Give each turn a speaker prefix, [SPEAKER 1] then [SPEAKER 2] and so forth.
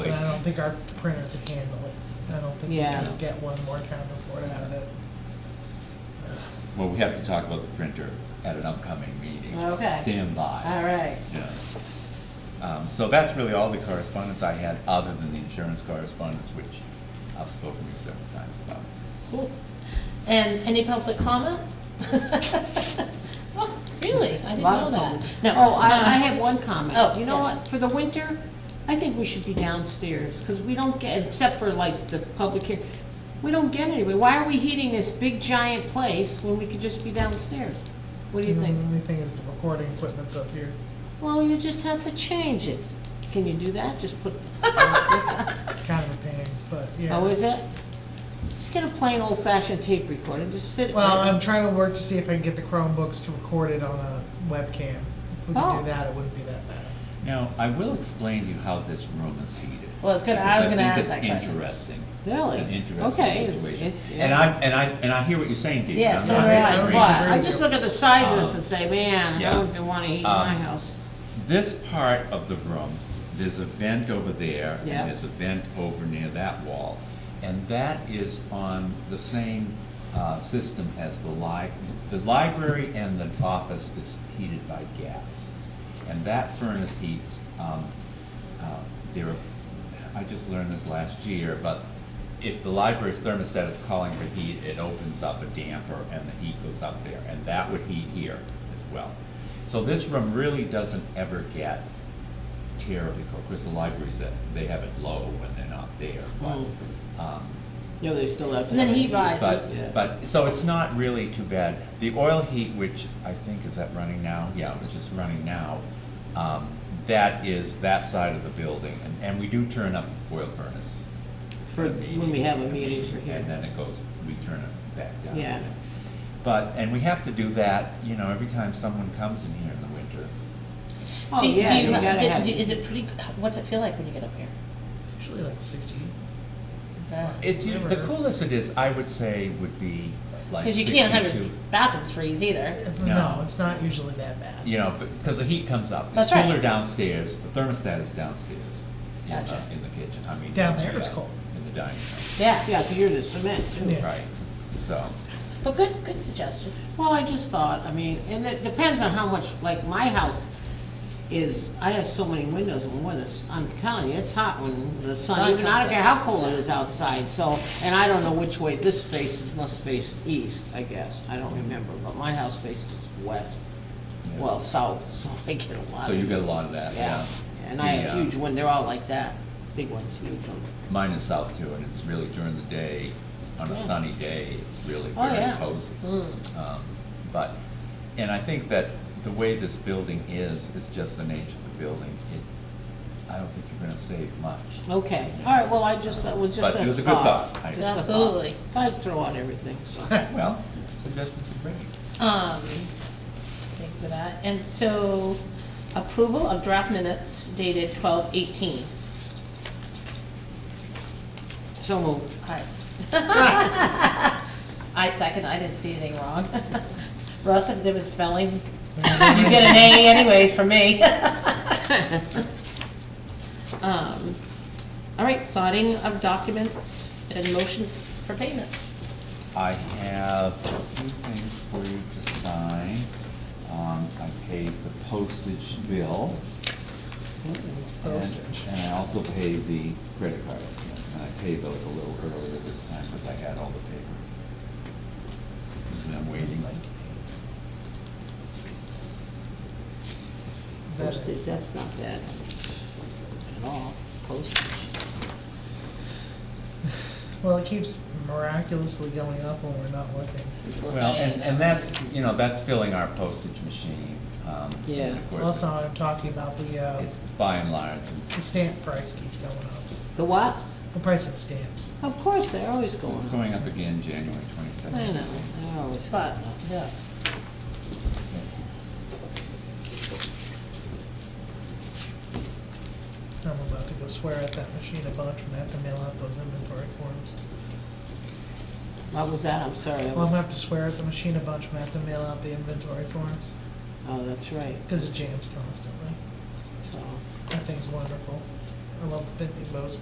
[SPEAKER 1] But I don't think our printer could handle it. I don't think we
[SPEAKER 2] Yeah.
[SPEAKER 1] can get one more town report out of it.
[SPEAKER 3] Well, we have to talk about the printer at an upcoming meeting.
[SPEAKER 2] Okay.
[SPEAKER 3] Stand by.
[SPEAKER 2] All right.
[SPEAKER 3] Yeah. Um, so that's really all the correspondence I had, other than the insurance correspondence, which I've spoken to you several times about.
[SPEAKER 4] Cool. And any public comment? Oh, really? I didn't
[SPEAKER 2] Lot
[SPEAKER 4] know
[SPEAKER 2] of
[SPEAKER 4] that.
[SPEAKER 2] comments.
[SPEAKER 4] No.
[SPEAKER 2] Oh, I, I
[SPEAKER 4] uh,
[SPEAKER 2] have one comment.
[SPEAKER 4] Oh,
[SPEAKER 2] You know
[SPEAKER 4] yes.
[SPEAKER 2] what, for the winter, I think we should be downstairs, because we don't get, except for like the public here, we don't get anywhere. Why are we heating this big giant place when we could just be downstairs? What do you
[SPEAKER 1] The
[SPEAKER 2] think?
[SPEAKER 1] only thing is the recording equipment's up here.
[SPEAKER 2] Well, you just have to change it. Can you do that? Just put,
[SPEAKER 1] It's kind of a pain, but yeah.
[SPEAKER 2] how is it? Just get a plain old fashioned tape recorder, just sit. it
[SPEAKER 1] Well,
[SPEAKER 2] right-
[SPEAKER 1] I'm trying to work to see if I can get the Chromebooks to record it on a webcam. If we could
[SPEAKER 2] Oh.
[SPEAKER 1] do that, it wouldn't be that bad.
[SPEAKER 3] Now, I will explain to you how this room is heated.
[SPEAKER 4] Well, I was gonna- I
[SPEAKER 3] because
[SPEAKER 4] was gonna
[SPEAKER 3] think
[SPEAKER 4] ask
[SPEAKER 3] it's
[SPEAKER 4] that question.
[SPEAKER 3] Interesting.
[SPEAKER 2] Really?
[SPEAKER 3] It's an interesting
[SPEAKER 2] Okay.
[SPEAKER 3] situation.
[SPEAKER 2] It-
[SPEAKER 3] And I, and I, and I hear what you're saying, Dee.
[SPEAKER 4] Yeah,
[SPEAKER 3] and I'm
[SPEAKER 4] so
[SPEAKER 3] not
[SPEAKER 4] do I,
[SPEAKER 3] disagreeing.
[SPEAKER 4] but-
[SPEAKER 2] I just look at the size of this and say, man, I
[SPEAKER 3] Yeah.
[SPEAKER 2] wouldn't wanna heat my
[SPEAKER 3] Um,
[SPEAKER 2] house.
[SPEAKER 3] This part of the room, there's a vent over there, and
[SPEAKER 2] Yeah.
[SPEAKER 3] there's a vent over near that wall. And that is on the same, uh, system as the li- the library and the office is heated by gas. And that furnace heats, um, uh, there are, I just learned this last year, but if the library's thermostat is calling for heat, it opens up a damper and the heat goes up there, and that would heat here as well. So this room really doesn't ever get terribly cold, because the libraries, uh, they have it low when they're not there,
[SPEAKER 2] Mm.
[SPEAKER 3] but, um,
[SPEAKER 2] No, they still have to.
[SPEAKER 4] And then
[SPEAKER 2] have it.
[SPEAKER 4] heat rises.
[SPEAKER 3] but, but, so it's not really too bad. The oil heat, which I think, is that running now? Yeah, it's just running now. Um, that is that side of the building, and, and we do turn up the oil furnace.
[SPEAKER 2] For, when we have a meeting for
[SPEAKER 3] And
[SPEAKER 2] here.
[SPEAKER 3] then it goes, we turn it back down.
[SPEAKER 2] Yeah.
[SPEAKER 3] again. But, and we have to do that, you know, every time someone comes in here in the winter.
[SPEAKER 2] Oh,
[SPEAKER 4] Do you- do
[SPEAKER 2] yeah,
[SPEAKER 4] you
[SPEAKER 2] you
[SPEAKER 4] ha-
[SPEAKER 2] gotta
[SPEAKER 4] do-
[SPEAKER 2] have.
[SPEAKER 4] do- Is it pretty, what's it feel like when you get up here?
[SPEAKER 1] It's usually like sixty.
[SPEAKER 2] Uh,
[SPEAKER 3] It's, u- the coolest it is, I would say, would be like
[SPEAKER 4] Because you
[SPEAKER 3] sixty-two.
[SPEAKER 4] can't have your bathrooms freeze either.
[SPEAKER 1] No, it's not usually that bad.
[SPEAKER 3] you know, because the heat comes up.
[SPEAKER 4] That's right.
[SPEAKER 3] It's cooler downstairs, the thermostat is downstairs in the,
[SPEAKER 4] Gotcha.
[SPEAKER 3] in the kitchen, I mean.
[SPEAKER 1] Down
[SPEAKER 3] in
[SPEAKER 1] there
[SPEAKER 3] the,
[SPEAKER 1] it's
[SPEAKER 3] uh,
[SPEAKER 1] cold.
[SPEAKER 3] In the dining room,
[SPEAKER 4] Yeah,
[SPEAKER 2] Yeah, because you're the cement too.
[SPEAKER 1] Yeah.
[SPEAKER 3] right, so,
[SPEAKER 4] but good, good suggestion.
[SPEAKER 2] Well, I just thought, I mean, and it depends on how much, like, my house is, I have so many windows, and when it's, I'm telling you, it's hot when the
[SPEAKER 4] Sun
[SPEAKER 2] sun, even I
[SPEAKER 4] comes
[SPEAKER 2] don't care
[SPEAKER 4] out.
[SPEAKER 2] how cold it is outside, so, and I don't know which way, this faces, must face east, I guess, I don't remember, but my house faces west,
[SPEAKER 3] Yeah.
[SPEAKER 2] well, south, so I get a lot of.
[SPEAKER 3] so you get a lot of that, yeah.
[SPEAKER 2] Yeah, and I have
[SPEAKER 3] The, uh,
[SPEAKER 2] huge ones, they're all like that, big ones, huge ones.
[SPEAKER 3] Mine is south too, and it's really during the day, on a
[SPEAKER 2] Yeah.
[SPEAKER 3] sunny day, it's really
[SPEAKER 2] Oh,
[SPEAKER 3] very
[SPEAKER 2] yeah.
[SPEAKER 3] cozy.
[SPEAKER 2] Mm.
[SPEAKER 3] Um, But, and I think that the way this building is, it's just the nature of the building, it, I don't think you're gonna save much.
[SPEAKER 2] Okay, all right, well, I just, that was just a
[SPEAKER 3] But
[SPEAKER 2] thought.
[SPEAKER 3] it was a good thought. I-
[SPEAKER 2] Just a thought.
[SPEAKER 4] Absolutely.
[SPEAKER 2] I'd throw out everything, so.
[SPEAKER 3] Well, suggestions are great.
[SPEAKER 4] Um, thank you for that. And so approval of draft minutes dated twelve eighteen.
[SPEAKER 2] So moved.
[SPEAKER 4] Hi. I second, I didn't see anything wrong. Russ, if there was spelling, you get an A anyways from me. Um, All right, signing of documents and motions for payments.
[SPEAKER 3] I have a few things for you to sign. Um, I paid the postage bill. and-
[SPEAKER 1] Postage.
[SPEAKER 3] And I also paid the credit cards, and I paid those a little earlier this time, because I had all the paper. Usually I'm waiting.
[SPEAKER 1] Is that it?
[SPEAKER 2] Postage, that's not bad at all, postage.
[SPEAKER 1] Well, it keeps miraculously going up when we're not looking.
[SPEAKER 3] Well, and, and that's, you know, that's filling our postage machine. um, and
[SPEAKER 2] Yeah.
[SPEAKER 3] Of course,
[SPEAKER 1] Also, I'm talking about the, uh,
[SPEAKER 3] it's by and large, and
[SPEAKER 1] the stamp price keeps going up.
[SPEAKER 2] The what?
[SPEAKER 1] The price of stamps.
[SPEAKER 2] Of course, they're always going
[SPEAKER 3] it's
[SPEAKER 2] up.
[SPEAKER 3] going up again January twenty-seventh.
[SPEAKER 2] I know, they're always going
[SPEAKER 4] But,
[SPEAKER 2] up.
[SPEAKER 4] yeah.
[SPEAKER 1] I'm about to go swear at that machine a bunch when I have to mail out those inventory forms.
[SPEAKER 2] What was that? I'm sorry, I
[SPEAKER 1] Well, I'm gonna
[SPEAKER 2] was,
[SPEAKER 1] have to swear at the machine a bunch when I have to mail out the inventory forms,
[SPEAKER 2] oh, that's right,
[SPEAKER 1] because it jams constantly.
[SPEAKER 2] so,
[SPEAKER 1] That thing's wonderful. I love the Big Big Bo's